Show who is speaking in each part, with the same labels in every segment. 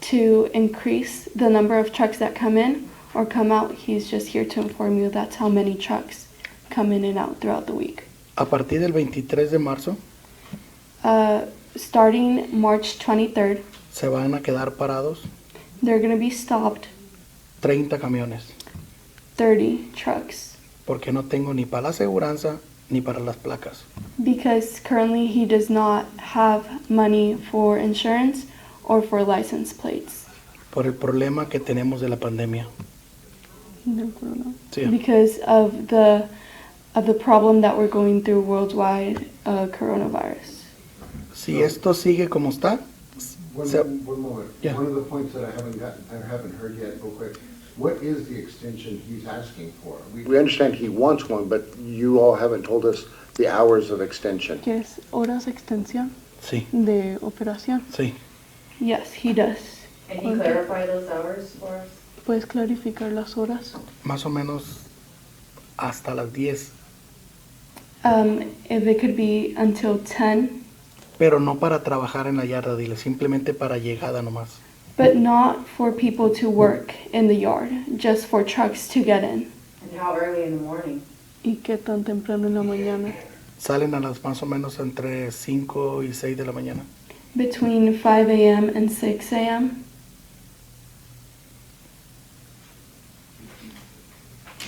Speaker 1: to increase the number of trucks that come in or come out. He's just here to inform you that's how many trucks come in and out throughout the week.
Speaker 2: A partir del 23 de marzo
Speaker 1: Uh, starting March 23rd,
Speaker 2: se van a quedar parados
Speaker 1: they're going to be stopped
Speaker 2: 30 camiones
Speaker 1: 30 trucks
Speaker 2: porque no tengo ni para la aseguranza ni para las placas.
Speaker 1: because currently he does not have money for insurance or for license plates.
Speaker 2: por el problema que tenemos de la pandemia. Sí.
Speaker 1: Because of the of the problem that we're going through worldwide, uh, coronavirus.
Speaker 2: Si esto sigue como está,
Speaker 3: One,
Speaker 2: So-
Speaker 3: one moment.
Speaker 2: Yeah.
Speaker 3: One of the points that I haven't gotten, I haven't heard yet, real quick. What is the extension he's asking for? We we understand he wants one, but you all haven't told us the hours of extension.
Speaker 4: que es horas de extensión
Speaker 2: sí,
Speaker 4: de operación.
Speaker 2: sí.
Speaker 1: Yes, he does.
Speaker 5: Can you clarify those hours for us?
Speaker 4: ¿Puedes clarificar las horas?
Speaker 2: Más o menos hasta las 10,
Speaker 1: Um, if it could be until 10,
Speaker 2: pero no para trabajar en la yarda, dile, simplemente para llegada nomás.
Speaker 1: but not for people to work in the yard, just for trucks to get in.
Speaker 5: And how early in the morning?
Speaker 4: ¿Y qué tan temprano en la mañana?
Speaker 2: Salen a las más o menos entre 5 y 6 de la mañana.
Speaker 1: Between 5 a.m. and 6 a.m.,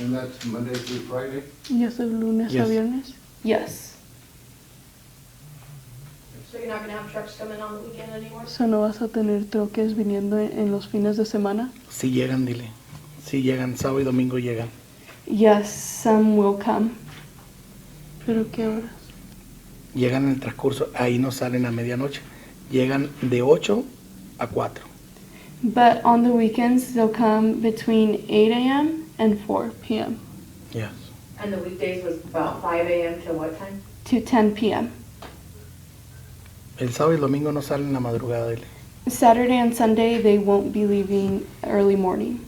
Speaker 3: And that's Monday through Friday?
Speaker 4: ¿Y es de lunes a
Speaker 2: Yes.
Speaker 4: viernes?
Speaker 1: yes.
Speaker 5: So you're not gonna have trucks coming on the weekend anymore?
Speaker 4: O sea, no vas a tener troques viniendo en, en los fines de semana.
Speaker 2: Si llegan, dile. Si llegan, sábado y domingo llegan.
Speaker 1: Yes, some will come.
Speaker 4: ¿Pero qué horas?
Speaker 2: Llegan en el transcurso, ahí no salen a medianoche. Llegan de 8 a 4.
Speaker 1: But on the weekends, they'll come between 8 a.m. and 4 p.m.
Speaker 2: Ya.
Speaker 5: And the weekdays was about five AM to what time?
Speaker 1: to 10 p.m.
Speaker 2: El sábado y el domingo no salen en la madrugada, dile.
Speaker 1: Saturday and Sunday, they won't be leaving early morning.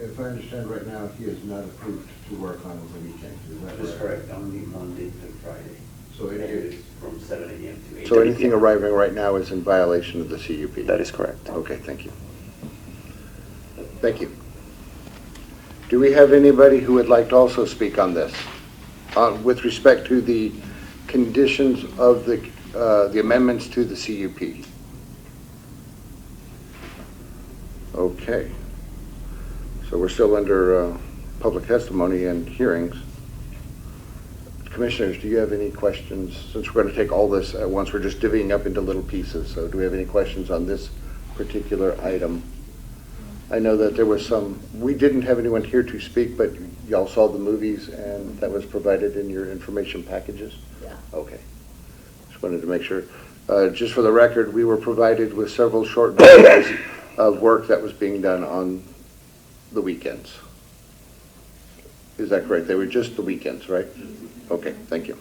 Speaker 3: If I understand right now, he is not approved to work on the weekend, is that
Speaker 6: That is
Speaker 3: correct?
Speaker 6: correct, only Monday to Friday.
Speaker 3: So it is,
Speaker 6: From seven AM to eight.
Speaker 7: So anything arriving right now
Speaker 3: is in violation of the CUP?
Speaker 7: That is correct.
Speaker 3: Okay, thank you. Thank you. Do we have anybody who would like to also speak on this? Uh, With respect to the conditions of the, uh, the amendments to the CUP? Okay. So we're still under uh, public testimony and hearings. Commissioners, do you have any questions? Since we're going to take all this at once, we're just divvying up into little pieces. So do we have any questions on this particular item? I know that there was some, we didn't have anyone here to speak, but y'all saw the movies and that was provided in your information packages?
Speaker 5: Yeah.
Speaker 3: Okay. Just wanted to make sure. Uh, Just for the record, we were provided with several short videos of work that was being done on the weekends. Is that correct? They were just the weekends, right? Okay, thank you.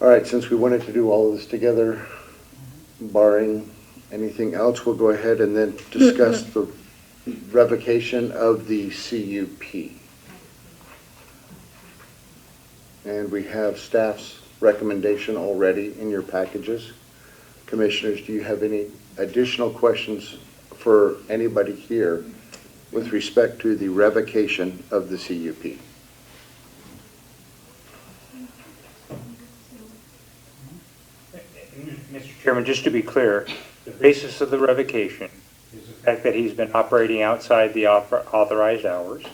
Speaker 3: All right, since we wanted to do all of this together, barring anything else, we'll go ahead and then discuss the revocation of the CUP. And we have staff's recommendation already in your packages. Commissioners, do you have any additional questions for anybody here with respect to the revocation of the CUP?
Speaker 8: Mr. Chairman, just to be clear, the basis of the revocation is the fact that he's been operating outside the author- authorized hours,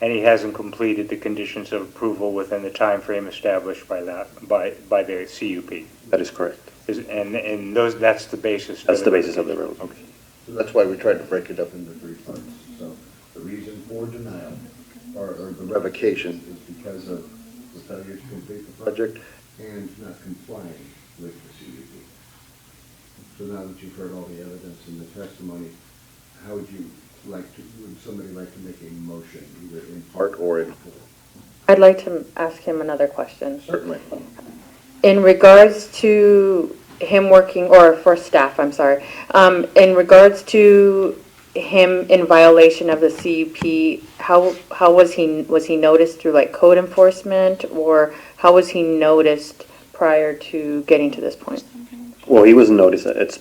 Speaker 8: and he hasn't completed the conditions of approval within the time frame established by that, by, by the CUP.
Speaker 7: That is correct.
Speaker 8: Is- And, and those, that's the basis. of
Speaker 7: That's the basis of the road.
Speaker 3: Okay. So that's why we tried to break it up into three parts. So the reason for denial or, or the revocation is because of the failure to complete the project and not complying with the CUP. So now that you've heard all the evidence and the testimony, how would you like to, would somebody like to make a motion either in part or in full?
Speaker 9: I'd like to ask him another question.
Speaker 3: Certainly.
Speaker 9: In regards to him working, or for staff, I'm sorry, um, in regards to him in violation of the CUP, how, how was he, was he noticed through like code enforcement? Or how was he noticed prior to getting to this point?
Speaker 7: Well, he was noticed, it's